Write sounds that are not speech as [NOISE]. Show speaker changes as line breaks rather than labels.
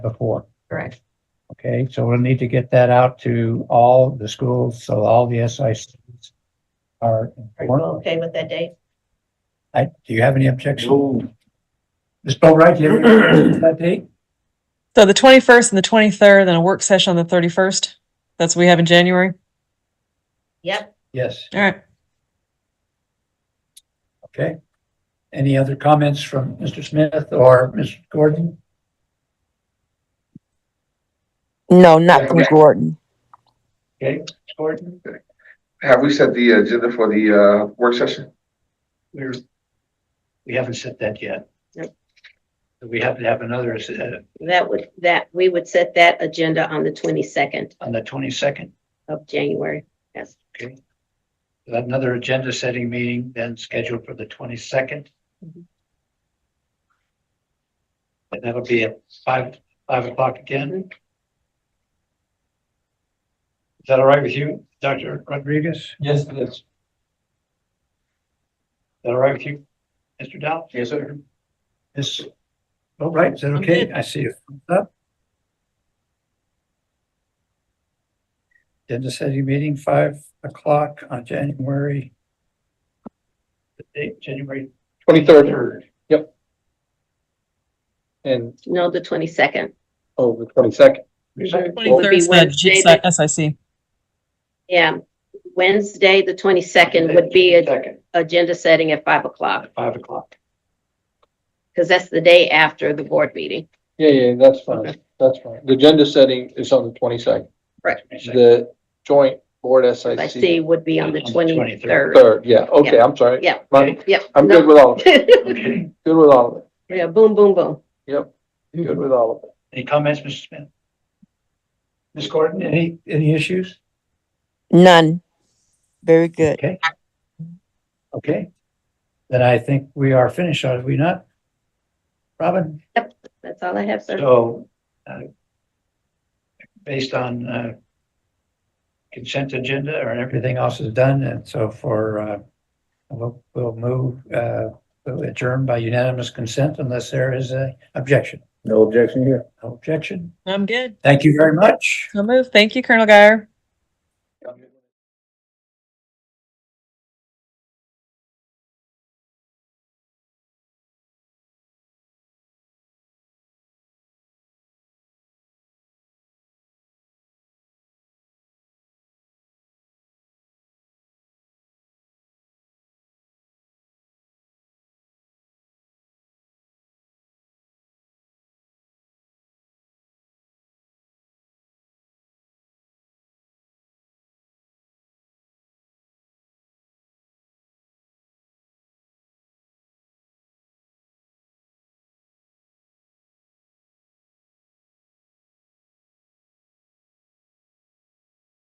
before.
Correct.
Okay, so we'll need to get that out to all the schools, so all the SI students are
Are you
informed.
okay with that date?
I, do you have any objection? Ms. Boatright, do you have any objection to that date?
So the twenty-first and the twenty-third, then a work session on the thirty-first. That's what we have in January.
Yep,
Yes,
All right.
okay. Any other comments from Mr. Smith or Ms. Gordon?
No, not from
Okay.
Gordon.
Okay, Ms. Gordon?
Have we set the agenda for the uh, work session?
We're, we haven't set that yet.
Yep.
We have to have another uh,
that would, that, we would set that agenda on the twenty-second
on the twenty-second,
of January. Yes,
another agenda setting meeting then scheduled for the twenty-second.
Mhm.
And that'll be at five, five o'clock again.
Mhm.
Is that all right with you, Dr. Rodriguez?
Yes, it is.
Is that all right with you, Mr. Dow?
Yes, sir.
Yes. All oh, right, is that
I'm
okay?
good.
I see you. Up. Agenda setting meeting, five o'clock on January. The date, January
Twenty-third,
third.
and,
no, the twenty-second.
oh, the twenty-second,
Twenty-third is
Wednesday,
the G- SIC.
Yeah, Wednesday, the twenty-second would be a-
second.
agenda setting at five o'clock,
At five o'clock.
because that's the day after the board meeting.
Yeah, yeah, that's fine,
Okay.
that's fine. The agenda setting is on the twenty-second. The joint board
I
SIC.
see would be on the
On the
twenty-third.
Third, yeah, okay, I'm sorry.
Yeah.
My-
Yep.
I'm good
no.
with all of it,
Okay,
good with all of it,
[LAUGHS] Yeah, boom, boom, boom.
yep, good with all of it.
any comments, Mr. Smith? Ms. Gordon, any, any issues?
None. Very good.
Okay. Okay. Then I think we are finished, are we not? Robin?
That's all I have, sir.
So, uh, based on, uh, consent agenda or everything else is done, and so for, uh, we'll, we'll move, uh, we'll adjourn by unanimous consent unless there is a objection.
No objection here.
No objection.
I'm good.
Thank you very much.
I'll move. Thank you, Colonel Guyer.